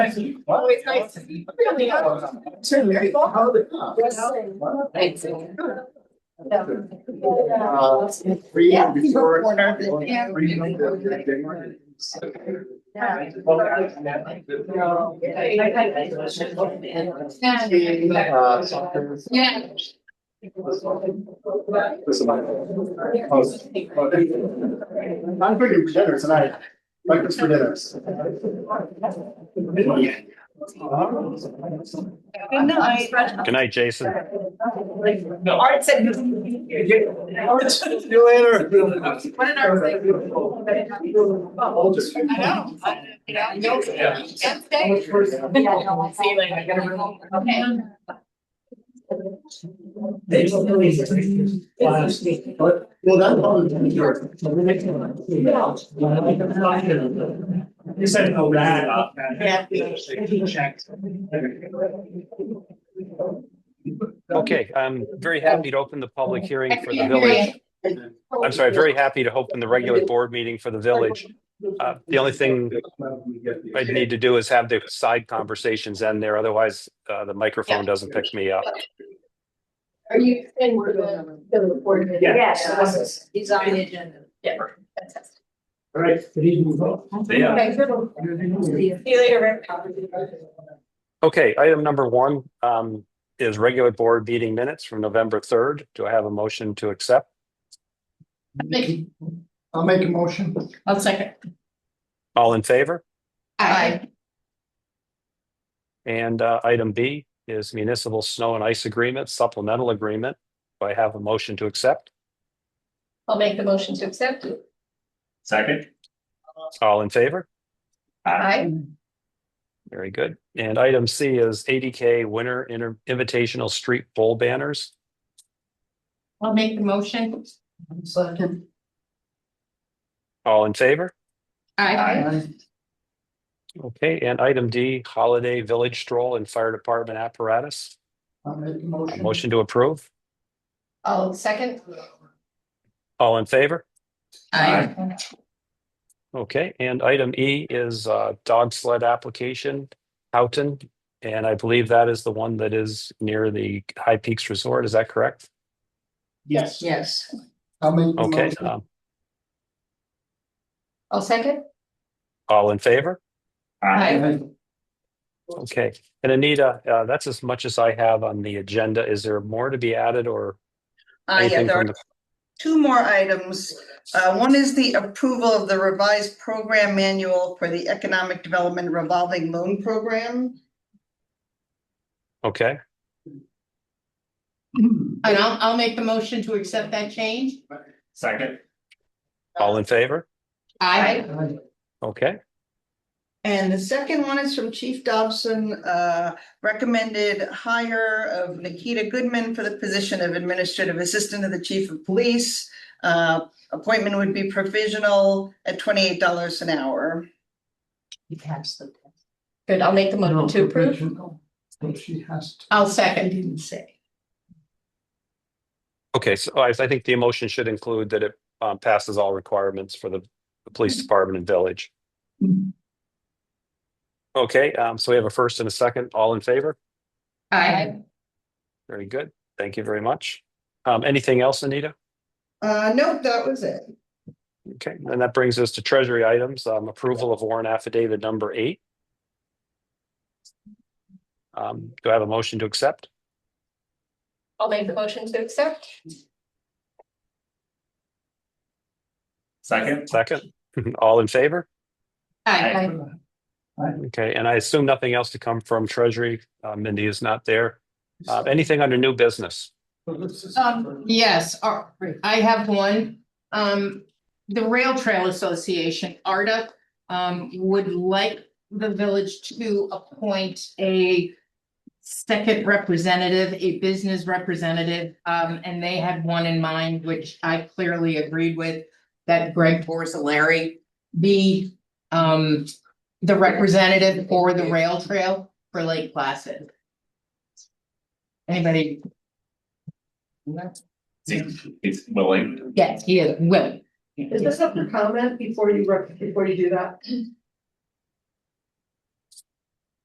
Well, it's nice to be. Really. Thanks. Freedom, restored. Corner. Freedom, the- the Denmark. Uh, soccer. Yeah. This is my- Oh, I'm bringing dinner tonight, breakfast for dinners. Good night, Jason. Art said. See you later. What did Art say? I know. I know. Yeah. Can't stay. See you later, I gotta run. Okay. Well, that's all the yours. You said, oh, bad. Yeah. Okay, I'm very happy to open the public hearing for the village. I'm sorry, very happy to open the regular board meeting for the village. Uh, the only thing I'd need to do is have the side conversations end there, otherwise uh, the microphone doesn't pick me up. Are you saying we're going to report? it? Yeah. Yes. He's on the agenda. Yeah. All right, good evening, folks. Yeah. Okay, good. See you later. Okay, item number one um, is regular board meeting minutes from November 3rd. Do I have a motion to accept? I'll make a motion. I'll second. All in favor? Aye. And uh, item B is municipal snow and ice agreement, supplemental agreement. Do I have a motion to accept? I'll make the motion to accept it. Second. All in favor? Aye. Very good. And item C is ADK Winter Inter- Invitational Street Bowl Banners. I'll make the motion. Second. All in favor? Aye. Okay, and item D, Holiday Village Stroll and Fire Department Apparatus. I'll make a A motion. Motion to approve. I'll second. All in favor? Aye. Okay, and item E is uh, Dog Sled Application, Houghton. And I believe that is the one that is near the High Peaks Resort. Is that correct? Yes, Yes. I'll make. the Okay, motion. um, I'll second. all in favor? Aye. Okay, and Anita, uh, that's as much as I have on the agenda. Is there more to be added or Uh, yeah, anything there from are the? two more items. Uh, one is the approval of the revised program manual for the Economic Development Revolving Loan Program. Okay, And I'll, I'll make the motion to accept that change. Second. all in favor? Aye. Aye. Okay, And the second one is from Chief Dobson, uh, recommended hire of Nikita Goodman for the position of Administrative Assistant to the Chief of Police. Uh, appointment would be provisional at twenty-eight dollars an hour. You passed the test. Good, I'll make the motion to approve. So she has to. I'll I second. didn't say. okay, so I, I think the emotion should include that it um, passes all requirements for the, the police department and village. Mhm. Okay, um, so we have a first and a second, all in favor? Aye. Very good, thank you very much. Um, anything else, Anita? Uh, nope, that was it. Okay, and that brings us to treasury items, um, approval of warrant affidavit number eight. Um, do I have a motion to accept? I'll make the motion to accept. Second. Second, all in favor? Aye. Okay, and I assume nothing else to come from treasury. Uh, Mindy is not there. Uh, anything under new business? Um, yes, uh, I have one. Um, the Rail Trail Association, ARDA, um, would like the village to appoint a second representative, a business representative, um, and they had one in mind, which I clearly agreed with, that Greg Porcelari be, um, the representative for the rail trail for Lake Placid. Anybody It's, it's willing. Yes, he is willing. Is there something to comment before you, rec- before you do that?